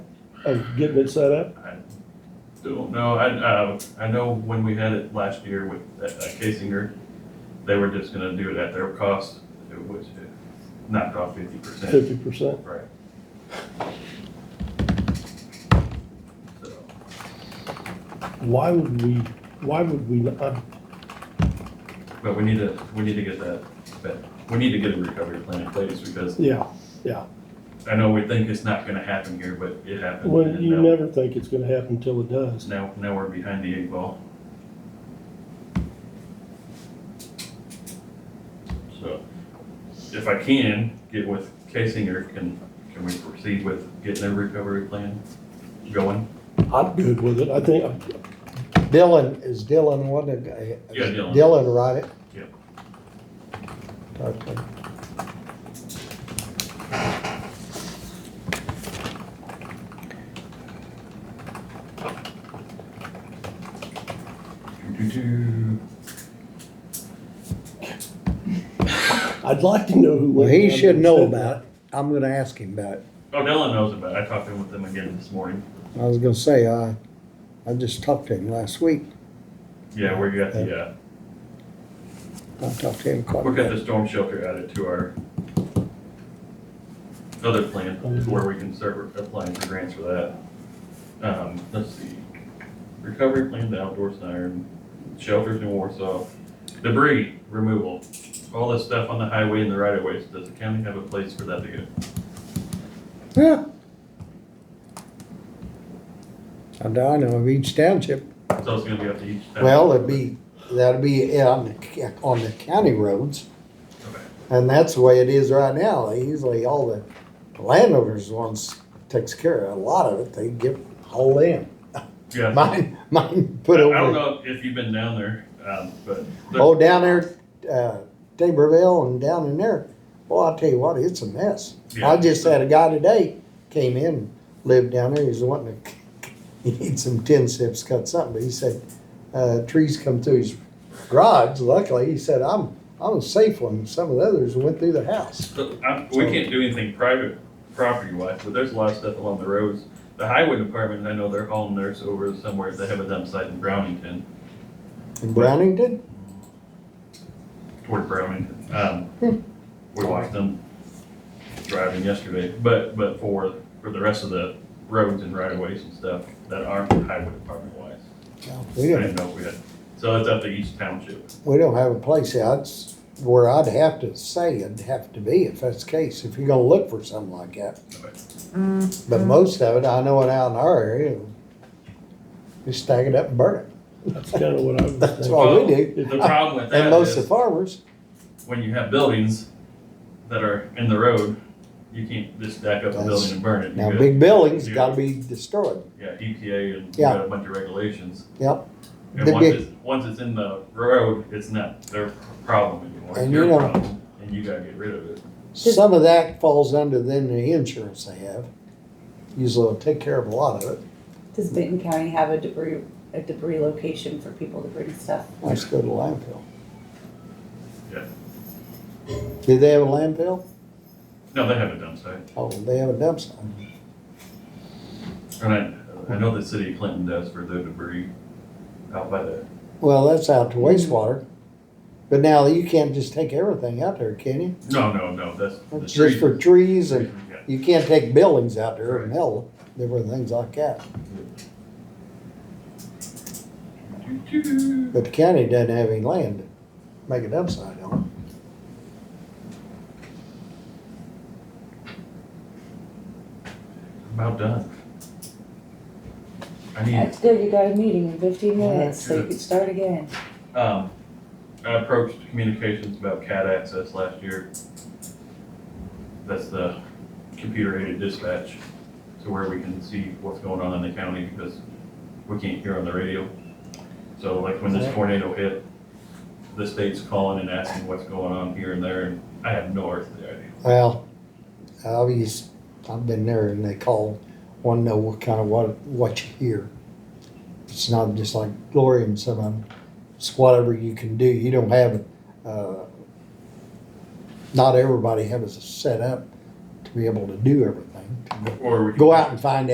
of getting it set up? Don't know, I, uh, I know when we had it last year with uh, Casinger, they were just gonna do it at their cost, it was uh, knocked off fifty percent. Fifty percent? Right. So, Why would we, why would we, not- I'm But we need to, we need to get that, but we need to get a recovery plan in place because Yeah, I know we think it's not gonna happen here, but it happened. well, and you now- never think it's gonna happen until it does. Now, now we're behind the eight ball. So, if I can, get with Casinger, can, can we proceed with getting a recovery plan going? I'm good with it. I think, Dylan, is Dylan one of the? guy- Yeah, Dylan. Dylan wrote it? Yep. Okay. Do-do-do. I'd like to know who. Well, went he down should and know said that. about it. I'm gonna ask him about it. Oh, Dylan knows about it, I talked to him with him again this morning. I was gonna say, I, I just talked to him last week. Yeah, we got the, uh, I talked to him quite a we got bit. the storm shelter added to our other plan, Mm-hmm. to where we can start applying for grants for that. Um, let's see, recovery plan, the outdoor siren, shelters in Warsaw, debris removal, all this stuff on the highway and the right of ways, does the county have a place for that to go? Yeah. And I know of each township. So it's gonna be up to each. town. Well, it'd be, that'd be on, the ca- on the county roads. Okay. And that's the way it is right now. Usually all the landowners ones takes care of a lot of it. They give whole in. Yeah, I Mine, mine put don't over. know if you've been down there, um, but. Oh, down there, uh, Taborville and down in there. Well, I'll tell you what, it's a mess. I Yeah. just had a guy today came in, lived down there. He was wanting to, he needs some tin sips, cut something. But he said, uh, trees come through his garage. Luckily, he said, I'm, I'm a safe one. Some of the others went through the house. So, I, we can't do anything private property wise, but there's a lot of stuff along the roads. The highway department, I know they're hauling theirs over somewhere, they have a dump site in Brownington, In Brownington? toward Brownington. Hmm. Um, we watched them driving yesterday, but, but for, for the rest of the roads and right of ways and stuff that aren't highway department wise. I We don't, didn't know if we had, so it's up to each township. we don't have a place out s- where I'd have to say it'd have to be if that's the case, if you're gonna look for something like that. But most of it, I know it out in our area, we stack it up and burn it. That's kind of what I was That's thinking. what Well, we do. The problem with And that most of the is farmers, when you have buildings that are in the road, you can't just stack up a That's- building and burn it. You now gotta- big buildings Yeah. gotta be destroyed. Yeah, EPA and we Yeah. got a bunch of regulations. Yep. And The once big- it's, once it's in the road, it's not their problem anymore, it's And you your know- problem, and you gotta get rid of it. Some of that falls under then the insurance they have. Usually will take care of a lot of it. Does Benton County have a debris, a debris location for people to bring stuff? Let's go to landfill. Yeah. Do they have a landfill? No, they have a dump site, Oh, they have a dump site. and I, I know the city of Clinton does for their debris out by the, Well, that's out to wastewater. But now you can't just take everything out there, can you? no, no, no, that's the It's trees. just for trees trees, and yeah. you can't take buildings out there and hell, different things like that. But the county doesn't have any land to make it upside on. About done. I need, That's good, you got a meeting in fifteen All right, minutes, so you good. can start again. um, I approached communications about CAT access last year. That's the computer aided dispatch, so where we can see what's going on in the county because we can't hear on the radio. So like when this tornado hit, the state's calling and asking what's going on here and there, and I have no earthly idea. Well, I've used, I've been there and they call, wanna know what kind of what, what you hear. It's not just like Glory and some of them. It's whatever you can do. You don't have, uh, not everybody has it set up to be able to do everything. Or we can- Go out and find